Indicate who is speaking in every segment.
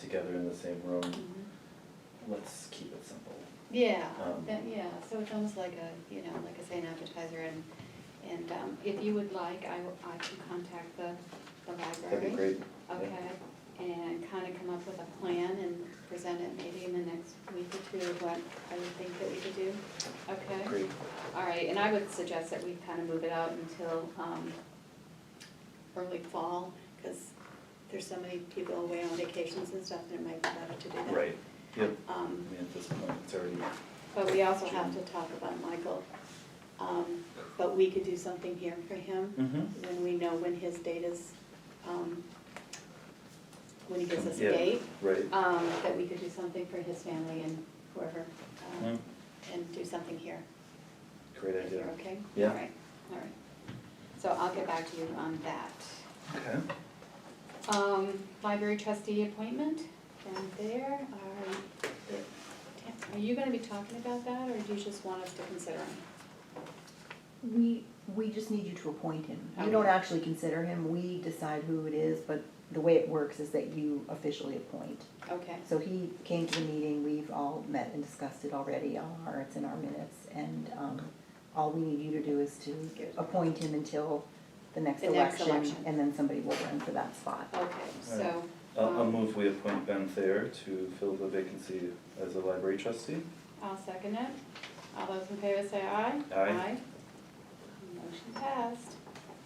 Speaker 1: together in the same room,
Speaker 2: Mm-hmm.
Speaker 1: let's keep it simple.
Speaker 2: Yeah,
Speaker 1: Um,
Speaker 2: that, yeah, so it's almost like a, you know, like I say, an appetizer, and, and um, if you would like, I will, I can contact the, the library.
Speaker 1: That'd be great. yeah.
Speaker 2: Okay, and kind of come up with a plan and present it maybe in the next week or two, of what I would think that we could do, okay?
Speaker 1: Great,
Speaker 2: All right, and I would suggest that we kind of move it out until um, early fall, because there's so many people away on vacations and stuff, and it might be better to do that.
Speaker 1: right, yep, I
Speaker 2: Um,
Speaker 1: mean, at this point, it's already,
Speaker 2: But we also have to talk about Michael. Um, But we could do something here for him,
Speaker 1: Mhm.
Speaker 2: when we know when his date is, um, when he gives us a
Speaker 1: Yeah.
Speaker 2: date,
Speaker 1: right?
Speaker 2: um, that we could do something for his family and whoever, um,
Speaker 1: Mm,
Speaker 2: and do something here.
Speaker 1: Great
Speaker 2: If you're
Speaker 1: idea.
Speaker 2: okay?
Speaker 1: Yeah.
Speaker 2: All right, all right. So I'll get back to you on that.
Speaker 1: Okay,
Speaker 2: Um, library trustee appointment, down there, are, are you gonna be talking about that, or do you just want us to consider him?
Speaker 3: We, we just need you to appoint him. You don't
Speaker 2: Okay.
Speaker 3: actually consider him, we decide who it is, but the way it works is that you officially appoint.
Speaker 2: Okay,
Speaker 3: So he came to the meeting, we've all met and discussed it already, all our, it's in our minutes, and, um, all we need you to do is to appoint him until the next
Speaker 2: The next
Speaker 3: election.
Speaker 2: election.
Speaker 3: And then somebody will run for that spot.
Speaker 2: okay, so,
Speaker 1: Alright. I'll, I'll
Speaker 2: Um,
Speaker 1: move we appoint Ben Thayer to fill the vacancy as a library trustee.
Speaker 2: I'll second it. All those in favor say aye?
Speaker 1: Aye.
Speaker 2: Motion passed.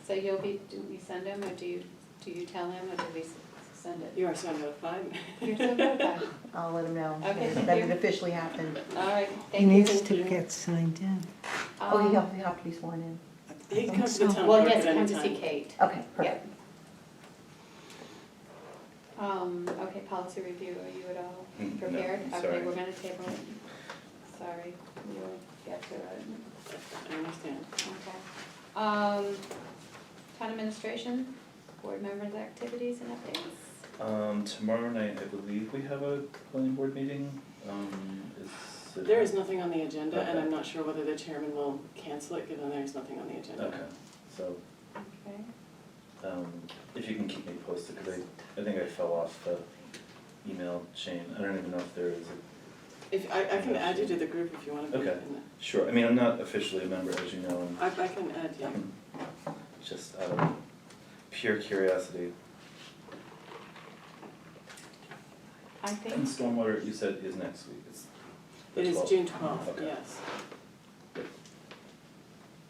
Speaker 2: So you'll be, do we send him, or do you, do you tell him, or do we s- send it?
Speaker 4: You are so notified.
Speaker 2: You're so good about it.
Speaker 3: I'll let him know
Speaker 2: Okay,
Speaker 3: that it
Speaker 2: thank you.
Speaker 3: officially happened.
Speaker 2: All right,
Speaker 5: He
Speaker 2: thank you.
Speaker 5: needs to get signed in.
Speaker 3: Oh,
Speaker 2: Um,
Speaker 3: he'll, he'll have to be sworn in.
Speaker 4: He can come to the town
Speaker 2: Well,
Speaker 4: clerk
Speaker 2: yes,
Speaker 4: at any
Speaker 2: come to see
Speaker 4: time.
Speaker 2: Kate.
Speaker 3: Okay, perfect.
Speaker 2: Yep. Um, okay, policy review, are you at all
Speaker 1: Hmm, no,
Speaker 2: prepared?
Speaker 1: I'm
Speaker 2: Okay,
Speaker 1: sorry.
Speaker 2: we're gonna table it. Sorry, we'll get to it,
Speaker 4: I understand.
Speaker 2: okay. Um, town administration, board members' activities and updates.
Speaker 1: Um, tomorrow night, I believe we have a planning board meeting, um, is it?
Speaker 4: There is nothing on the agenda, and
Speaker 1: Okay.
Speaker 4: I'm not sure whether the chairman will cancel it, given there's nothing on the agenda.
Speaker 1: Okay, so,
Speaker 2: Okay,
Speaker 1: um, if you can keep me posted, cause I, I think I fell off the email chain, I don't even know if there is a,
Speaker 4: If, I, I can add you to the group if you want to be in
Speaker 1: Okay. sure, I mean, I'm not officially a member, as you know,
Speaker 4: the- I, I can add you.
Speaker 1: and just out of pure curiosity.
Speaker 2: I
Speaker 1: And
Speaker 2: think,
Speaker 1: stormwater, you said is next week, it's the
Speaker 4: It is
Speaker 1: 12th.
Speaker 4: June twelfth,
Speaker 1: Okay.
Speaker 4: yes.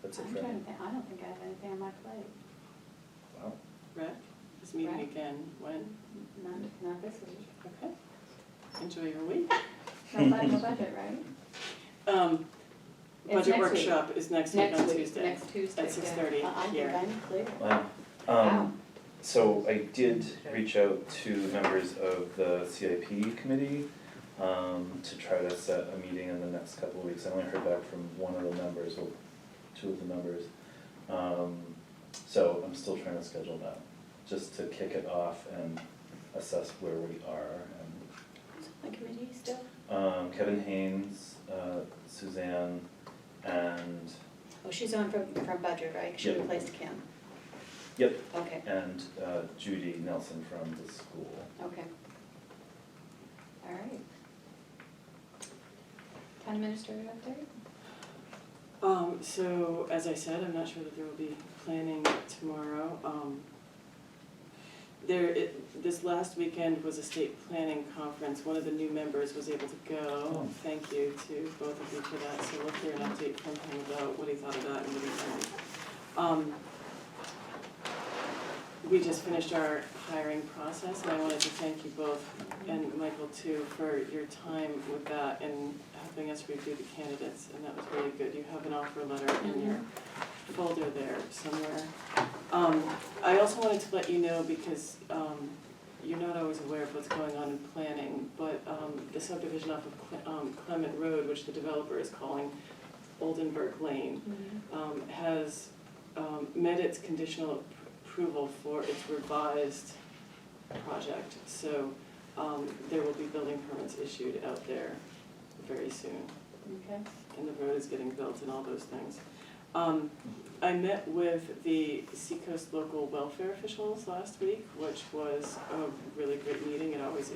Speaker 1: That's it
Speaker 2: I'm
Speaker 1: for me,
Speaker 2: trying to think, I don't think I have anything on my plate,
Speaker 1: wow,
Speaker 4: Rec is meeting
Speaker 2: Rec.
Speaker 4: again when?
Speaker 2: not, not this week.
Speaker 4: Okay. Enjoy your week.
Speaker 2: No bu- no budget, right?
Speaker 4: Um,
Speaker 2: It's next
Speaker 4: budget
Speaker 2: week.
Speaker 4: workshop is next week on Tuesday.
Speaker 2: Next Tuesday,
Speaker 4: At 6:30
Speaker 2: yeah. I- I
Speaker 4: here.
Speaker 2: think I'm clear.
Speaker 1: wow.
Speaker 2: Wow.
Speaker 1: Um, So I did reach out to members of the CIP committee um, to try to set a meeting in the next couple of weeks. I only heard back from one of the members, or two of the members. Um, So I'm still trying to schedule that, just to kick it off and assess where we are. And,
Speaker 2: Who's on the committee still?
Speaker 1: um, Kevin Haynes, uh, Suzanne, and,
Speaker 2: Oh, she's on from, from budget, right? She
Speaker 1: Yep.
Speaker 2: replaced Kim.
Speaker 1: yep,
Speaker 2: Okay,
Speaker 1: and uh, Judy Nelson from the school.
Speaker 2: okay. All right. Town administrator update?
Speaker 4: Um, so, as I said, I'm not sure that there will be planning tomorrow. Um, there, it, this last weekend was a state planning conference. One of the new members was able to go.
Speaker 1: Oh.
Speaker 4: Thank you to both of you for that. So we'll hear an update from him about what he thought of that and what he learned. Um, we just finished our hiring process, and I wanted to thank you both, and Michael too, for your time with that and helping us review the candidates, and that was really good. You have an offer letter in your folder there somewhere. Um, I also wanted to let you know, because, um, you're not always aware of what's going on in planning, but, um, the subdivision off of Cle- um, Clement Road, which the developer is calling Oldenburg Lane, um, has um, met its conditional appro- approval for its revised project. So um, there will be building permits issued out there very soon,
Speaker 2: Okay.
Speaker 4: and the road is getting built and all those things. Um, I met with the Seacoast local welfare officials last week, which was a really great meeting, it always